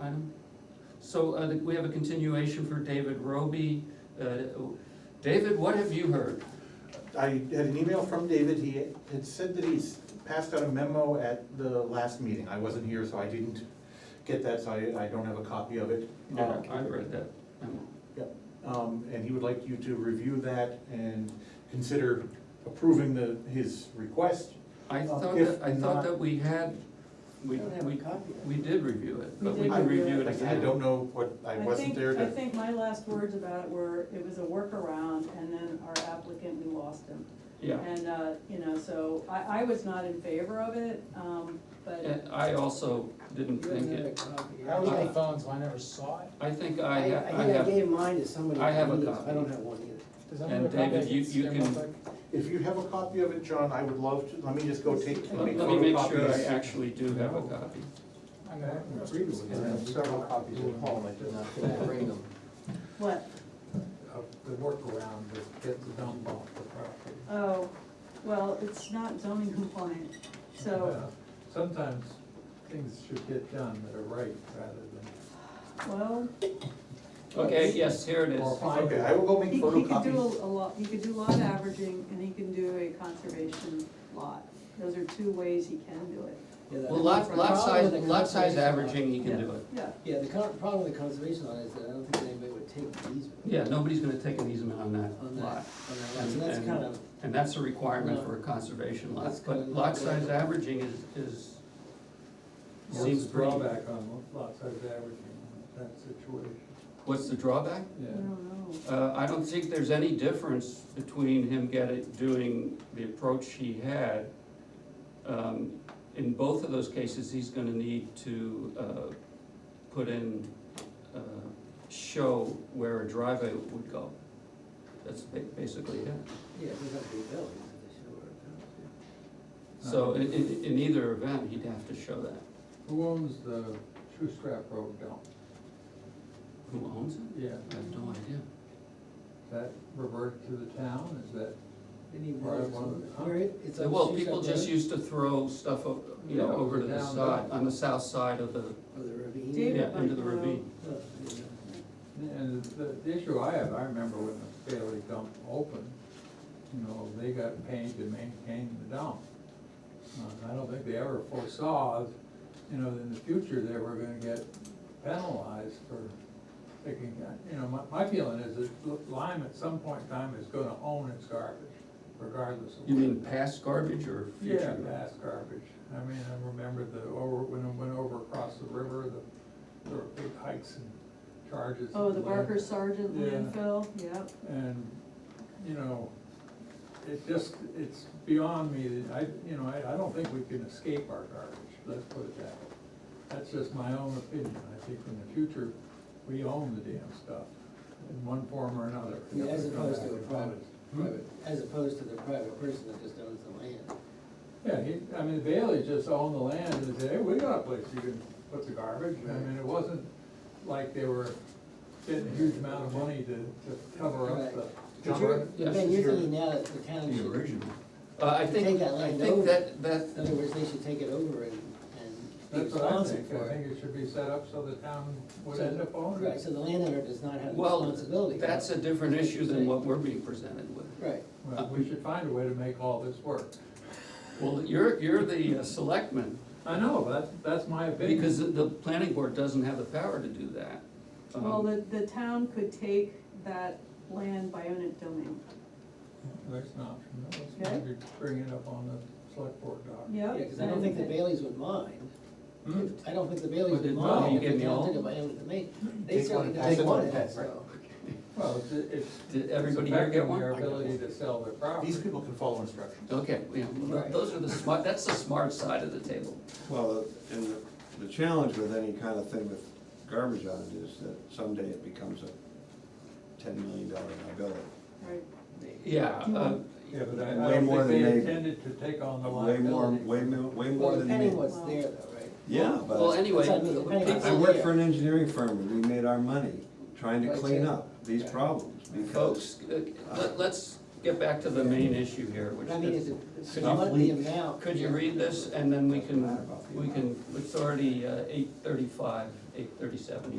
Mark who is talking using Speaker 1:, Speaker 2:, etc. Speaker 1: item? So uh, we have a continuation for David Roby. Uh, David, what have you heard?
Speaker 2: I had an email from David, he had said that he's passed out a memo at the last meeting, I wasn't here, so I didn't get that, so I, I don't have a copy of it.
Speaker 1: Yeah, I read that.
Speaker 2: Yep, um, and he would like you to review that and consider approving the, his request.
Speaker 1: I
Speaker 2: Uh,
Speaker 1: thought
Speaker 2: if
Speaker 1: that, I
Speaker 2: not-
Speaker 1: thought that we had, we,
Speaker 3: I don't have a
Speaker 1: we,
Speaker 3: copy of it.
Speaker 1: we did review it,
Speaker 3: We
Speaker 1: but we
Speaker 3: did
Speaker 1: can
Speaker 3: review
Speaker 1: review it
Speaker 2: Like I said, I
Speaker 1: again.
Speaker 2: don't know what, I wasn't
Speaker 3: think-
Speaker 2: there
Speaker 3: I
Speaker 2: to,
Speaker 3: think my last words about it were, it was a workaround, and then our applicant, we lost him.
Speaker 1: Yeah,
Speaker 3: And, uh, you know, so I, I was not in favor of it, um, but,
Speaker 1: and I also didn't
Speaker 4: You
Speaker 1: think
Speaker 4: have a
Speaker 1: it,
Speaker 4: copy.
Speaker 5: I was on the phone, so I never saw it.
Speaker 1: I think I, ha- I
Speaker 4: think I
Speaker 1: have,
Speaker 4: gave mine to somebody.
Speaker 1: I have a
Speaker 4: who needs-
Speaker 1: copy.
Speaker 4: I don't have one either.
Speaker 5: Does anyone
Speaker 1: And
Speaker 5: have a copy?
Speaker 1: David, you- you
Speaker 5: Stay
Speaker 1: can-
Speaker 5: real
Speaker 2: if you have a copy of it, John, I would love to, let me just go take,
Speaker 1: let
Speaker 2: let me
Speaker 1: let me make sure I
Speaker 2: photocopy.
Speaker 1: actually do have a copy.
Speaker 5: quick. I'm gonna-
Speaker 6: Several copies at home, I did not bring them.
Speaker 3: what,
Speaker 6: Uh, The workaround was get the dump off the property.
Speaker 3: oh, well, it's not zoning compliant, so,
Speaker 6: Uh, Sometimes things should get done that are right rather
Speaker 3: well,
Speaker 1: Okay, yes, here it
Speaker 6: than.
Speaker 1: is.
Speaker 6: or find
Speaker 2: Okay, I will go
Speaker 3: he,
Speaker 2: make
Speaker 3: he could do
Speaker 2: photocopies.
Speaker 3: a a lot, he could do lot averaging, and he can do a conservation lot. Those are two ways he can do it,
Speaker 1: Well, lot, lot size, lot size averaging, he can do it.
Speaker 3: yeah.
Speaker 4: Yeah, the con- problem with the conservation lot is that I don't think anybody would take the easement.
Speaker 1: Yeah, nobody's gonna take an easement on
Speaker 4: On
Speaker 1: that
Speaker 4: that, on that
Speaker 1: lot.
Speaker 4: lot, so that's
Speaker 1: And-
Speaker 4: kind of,
Speaker 1: And that's a requirement for a conservation lot,
Speaker 4: That's
Speaker 1: but
Speaker 4: kinda
Speaker 1: lot
Speaker 4: not-
Speaker 1: size averaging is, is,
Speaker 6: What's
Speaker 1: seems
Speaker 6: the
Speaker 1: pretty.
Speaker 6: Drawback on lot size averaging, in that situation,
Speaker 1: What's the drawback?
Speaker 3: I
Speaker 6: yeah.
Speaker 3: don't know.
Speaker 1: Uh, I don't think there's any difference between him getting, doing the approach he had. Um, In both of those cases, he's gonna need to, uh, put in, uh, show where a driveway would go. That's ba- basically it.
Speaker 4: yeah, it doesn't have to be built, it's just a short amount,
Speaker 1: So in, in, in either event, he'd have to show that.
Speaker 6: Who owns the Shoestrap Road dump?
Speaker 1: Who owns it?
Speaker 6: Yeah.
Speaker 1: I have no idea.
Speaker 6: Is that reverted to the town, is that?
Speaker 4: yeah. Any
Speaker 6: Or
Speaker 4: more-
Speaker 6: one-
Speaker 4: Where it- it's on
Speaker 1: Well,
Speaker 4: Shusha
Speaker 1: people just
Speaker 4: Road
Speaker 1: used to throw stuff, o- you know,
Speaker 6: Yeah,
Speaker 1: over to the
Speaker 6: down
Speaker 1: side,
Speaker 6: the-
Speaker 1: on the south side of the,
Speaker 4: Or the ravine.
Speaker 3: David
Speaker 1: yeah, into
Speaker 3: might
Speaker 1: the
Speaker 3: know.
Speaker 1: ravine.
Speaker 4: Oh, yeah.
Speaker 6: And the, the issue I have, I remember when the Bailey dump opened, you know, they got paid to maintain the dump. Uh, I don't think they ever foresaw, you know, in the future, they were gonna get penalized for taking, that. you know, my, my feeling is that Lime at some point in time is gonna own its garbage, regardless of.
Speaker 1: You mean past garbage or future?
Speaker 6: Yeah,
Speaker 1: garbage?
Speaker 6: mass garbage. I mean, I remember the, over, when I went over across the river, the, there were big hikes and charges.
Speaker 3: Oh, the
Speaker 6: and
Speaker 3: Barker Sergeant
Speaker 6: Yeah.
Speaker 3: landfill, yep.
Speaker 6: And, you know, it just, it's beyond me, that I, you know, I, I don't think we can escape our garbage, let's put it that way. That's just my own opinion, I think in the future, we own the damn stuff in one form or another.
Speaker 4: I mean, as opposed to a private,
Speaker 6: Hmm?
Speaker 4: private, as opposed to the private person that just owns the land.
Speaker 6: Yeah, he, I mean, Bailey just owned the land and said, hey, we got a place you can put the garbage, I mean, it wasn't like they were getting a huge amount of money to, to cover up
Speaker 4: Right.
Speaker 6: the
Speaker 4: But you're,
Speaker 6: dump.
Speaker 1: Yes,
Speaker 4: Ben, you're
Speaker 1: sure.
Speaker 4: thinking now that the town
Speaker 1: The
Speaker 4: should,
Speaker 1: original. Uh, I
Speaker 4: Take
Speaker 1: think,
Speaker 4: that
Speaker 1: I
Speaker 4: land
Speaker 1: think
Speaker 4: over.
Speaker 1: that, that,
Speaker 4: in other words, they should take it over and, and be
Speaker 6: That's what I
Speaker 4: responsible
Speaker 6: think,
Speaker 4: for
Speaker 6: I
Speaker 4: it.
Speaker 6: think it should be set up so the town would
Speaker 4: So-
Speaker 6: end up owning
Speaker 4: Right,
Speaker 6: it.
Speaker 4: so the landowner does not have the
Speaker 1: well,
Speaker 4: responsibility.
Speaker 1: that's a different issue than what we're being presented with.
Speaker 4: Right,
Speaker 6: Well, we should find a way to make all this work.
Speaker 1: Well, you're, you're the uh, selectman,
Speaker 6: I know, that's, that's my opinion.
Speaker 1: because the- the planning board doesn't have the power to do that. Um,
Speaker 3: Well, the, the town could take that land bionic domain,
Speaker 6: That's an option, let's
Speaker 3: Okay.
Speaker 6: maybe bring it up on the select board doc.
Speaker 4: yeah,
Speaker 3: yep.
Speaker 4: because I don't think the Baileys would mind,
Speaker 6: Hmm?
Speaker 4: I don't think the Baileys
Speaker 1: But
Speaker 4: would
Speaker 1: it-
Speaker 6: no,
Speaker 4: mind
Speaker 1: you
Speaker 4: if
Speaker 1: give
Speaker 4: the
Speaker 1: me all-
Speaker 4: town took it by own domain. They
Speaker 2: Take
Speaker 4: certainly
Speaker 2: one, pass
Speaker 4: don't
Speaker 2: it
Speaker 4: want
Speaker 2: on,
Speaker 4: it,
Speaker 2: pass it.
Speaker 4: so.
Speaker 6: Well, it's, it's.
Speaker 1: Did
Speaker 6: it's
Speaker 1: everybody here get
Speaker 6: affecting
Speaker 1: one?
Speaker 6: Their ability to sell their property.
Speaker 2: These people can follow instructions.
Speaker 1: Okay, yeah, well,
Speaker 4: Right.
Speaker 1: those are the smart, that's the smart side of the table.
Speaker 7: Well, and the, the challenge with any kind of thing with garbage on it is that someday it becomes a ten million dollar liability.
Speaker 3: Right,
Speaker 1: Yeah, uh,
Speaker 6: Yeah, but I, I
Speaker 7: Way
Speaker 6: don't
Speaker 7: more
Speaker 6: think they
Speaker 7: than they-
Speaker 6: intended to take on the
Speaker 7: Way more,
Speaker 6: liability.
Speaker 7: way more, way
Speaker 4: Well,
Speaker 7: more than
Speaker 4: depending
Speaker 7: me.
Speaker 4: what's there though, right?
Speaker 7: Yeah,
Speaker 1: well,
Speaker 7: but
Speaker 1: anyway,
Speaker 4: That's what I mean,
Speaker 7: I
Speaker 4: it's-
Speaker 1: people-
Speaker 7: work for an engineering firm, and we made our money trying to
Speaker 4: Right,
Speaker 7: clean
Speaker 4: yeah.
Speaker 7: up these
Speaker 4: Yeah.
Speaker 7: problems because.
Speaker 1: folks, uh, let- let's get back to the main issue here, which
Speaker 4: But I mean, is
Speaker 1: is,
Speaker 4: it,
Speaker 1: Could
Speaker 4: should
Speaker 1: you
Speaker 4: let the
Speaker 7: please-
Speaker 4: amount?
Speaker 1: could you read this, and then we can, we can, it's already eight uh, thirty-five eight thirty-seven